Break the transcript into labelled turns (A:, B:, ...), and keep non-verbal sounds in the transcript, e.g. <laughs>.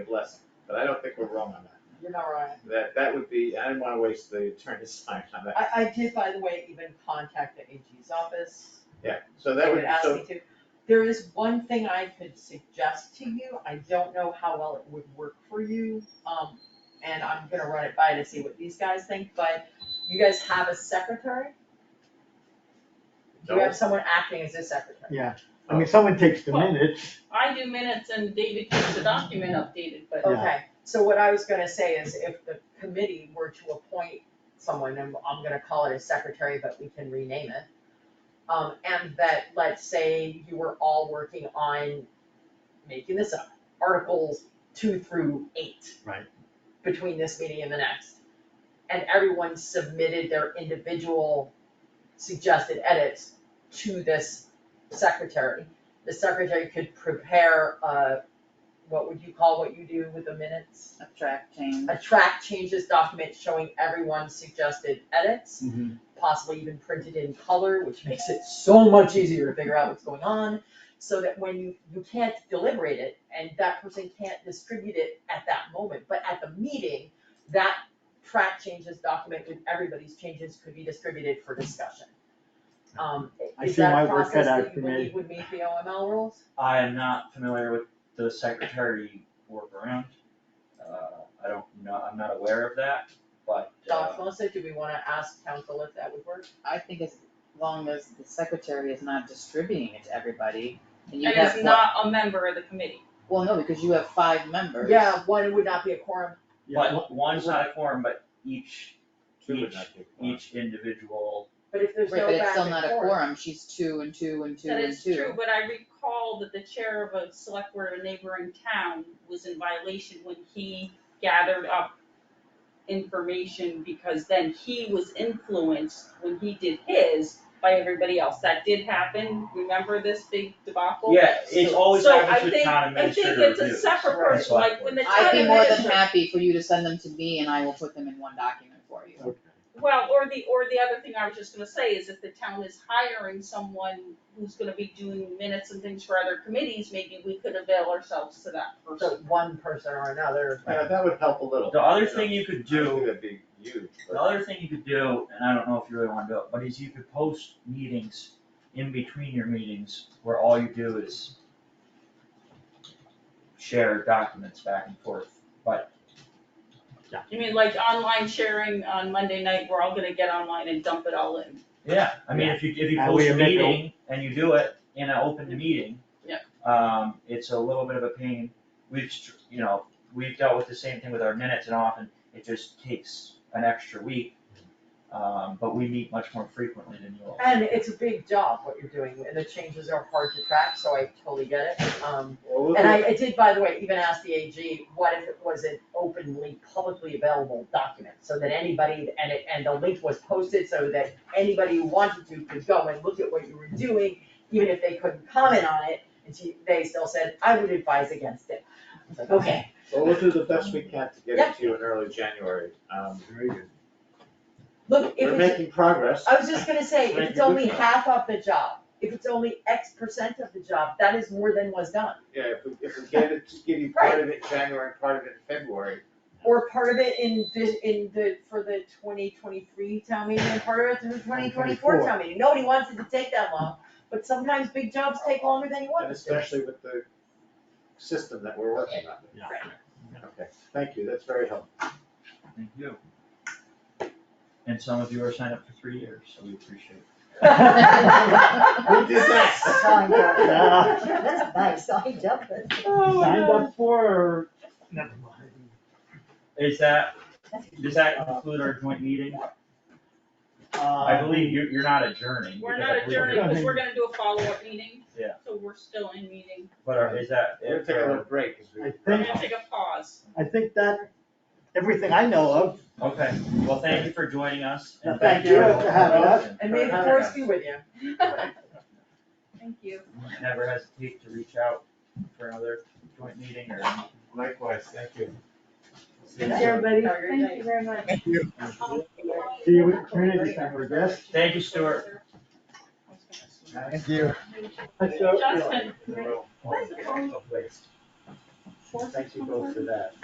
A: less, but I don't think we're wrong on that.
B: You're not right.
A: That, that would be, I didn't wanna waste the attorney's <laughs> time on that.
B: I, I did, by the way, even contact the AG's office.
A: Yeah, so
B: They
A: that would,
B: would ask
A: so,
B: me to. There is one thing I could suggest to you, I don't know how well it would work for you, um, and I'm gonna run it by to see what these guys think, but you guys have a secretary? You
A: no,
B: have someone acting as a secretary?
C: I mean, someone takes the
D: Well-
C: minutes,
D: I do minutes and David keeps the document updated, but
C: Yeah.
B: Okay, so what I was gonna say is if the committee were to appoint someone, and I'm gonna call it a secretary, but we can rename it. Um, and that, let's say you were all working on making this up, articles two through eight.
C: Right.
B: Between this meeting and the next. And everyone submitted their individual suggested edits to this secretary. The secretary could prepare a what would you call what you do with the minutes?
E: Attract change.
B: A track changes document showing everyone's suggested edits,
F: Mm-hmm.
C: Mhm.
B: possibly even printed in color, which makes it so much easier to figure out what's going on. So that when you, you can't deliberate it and that person can't distribute it at that moment, but at the meeting, that track changes document with everybody's changes could be distributed for discussion. Um,
C: I
B: is
C: see
B: that
C: my
B: a
C: work
B: process
C: cut out
B: that
C: for
B: you
C: me.
B: believe would meet the OML rules?
F: I am not familiar with the secretary workaround. Uh, I don't know, I'm not aware of that, but,
B: Josh,
F: uh,
B: Melissa, do we wanna ask council if that would work?
E: I think as long as the secretary is not distributing it to everybody, and you
D: and
E: have
D: is
E: what,
D: not a member of the committee.
E: well, no, because you have five members.
B: Yeah, one would not be a quorum.
C: yeah, <laughs>
F: but one's not a quorum, but each,
A: two would
F: each,
A: not be fine.
F: each individual,
B: But if
E: Right,
B: there's no
E: but it's
B: back
E: still
B: and
E: not a
B: forth-
E: quorum, she's two and two and two
D: That
E: and
D: is
E: two.
D: true, but I recall that the chair of a select board of a neighboring town was in violation when he gathered up information because then he was influenced when he did his by everybody else. That did happen, remember this big debacle?
F: yeah, it's always
D: So
F: happens
D: I
F: with
D: think-
F: town administrator reviews.
D: I think it's a separate
F: Right.
D: person, like when the town
E: I'd be more than
D: administrator.
E: happy for you to send them to me and I will put them in one document for you.
C: okay.
D: Well, or the, or the other thing I was just gonna say is if the town is hiring someone who's gonna be doing minutes and things for other committees, maybe we could avail ourselves to that
B: So
D: person.
B: one person or another.
A: Yeah, that would help a little.
F: The other
A: you know.
F: thing you could
A: I don't think
F: do,
A: that'd be huge, but-
F: the other thing you could do, and I don't know if you really wanna do it, but is you could post meetings in between your meetings where all you do is share documents back and forth, but
D: You mean like online sharing on Monday night, we're all gonna get online and dump it all in.
F: Yeah, I mean, if you, if you
C: And
F: post
C: we
F: a
C: admit no-
F: meeting and you do it in an open meeting.
D: Yeah.
F: Um, it's a little bit of a pain, we've, str- you know, we've dealt with the same thing with our minutes and often it just takes an extra week. Um, but we meet much more frequently than you all.
B: And it's a big job what you're doing, and the changes are hard to track, so I totally get it. Um,
A: Well, we'll
B: and
A: do-
B: I, I did, by the way, even ask the AG, what if it was an openly publicly available document? So that anybody, and it, and the link was posted so that anybody who wanted to could go and look at what you were doing, even if they couldn't comment on it, and she, they still said, I would advise against it. I was like, okay.
A: Well, we'll do the best we can to get
B: Yeah.
A: it to you in early January. Um,
C: Very good.
B: Look, if
A: We're
B: it's,
A: making progress.
B: I was just gonna say, if
A: Right,
B: it's
A: you're good
B: only
A: for it.
B: half of the job, if it's only X percent of the job, that is more than was done.
A: <laughs> Yeah, if we, if we get it, give you part of it in January, and part of it in February,
B: Or part of it in the, in the, for the twenty twenty-three town meeting, and part of it through twenty twenty-four
C: 2024.
B: town meeting, nobody wants it to take that long, but sometimes big jobs take longer than you want
A: and
B: it <laughs> to.
A: especially with the system that we're working on.
C: Yeah.
A: Okay, thank you, that's very
B: <laughs>
A: helpful.
F: Thank you. And some of you are signed up for three years, so we appreciate it.
A: Who did that?
G: Signed
D: <laughs>
G: up.
C: Yeah.
G: That's nice, signed up, that's,
D: Oh,
C: Signed up for, or- never mind.
F: Is that, does that conclude our joint meeting? I
C: Uh,
F: believe you, you're not adjourning.
D: We're
F: because
D: not
F: I believe you're-
D: adjourned, cause we're gonna do a follow-up meeting.
F: Yeah.
D: So we're still in meeting,
F: But are- is that?
A: We're gonna take a little break as we.
C: I
D: we're
C: think-
D: gonna take a pause.
C: I think that, everything I know of,
F: Okay, well, thank you for joining us. and
C: Thank you for having us.
B: And may the
A: Right.
B: force be with you.
D: <laughs> Thank you.
F: Never hesitate to reach out for another joint meeting or.
A: Likewise, thank you. See you
B: Thanks,
A: soon.
B: everybody. Have a great night.
D: you very much.
G: thank you.
C: see you at community center, I guess.
F: Thank you, Stuart.
G: Thank you.
C: So, you know,
D: Justin.
A: Well,
D: That's
A: place.
H: fourth?
C: Thank you both for that.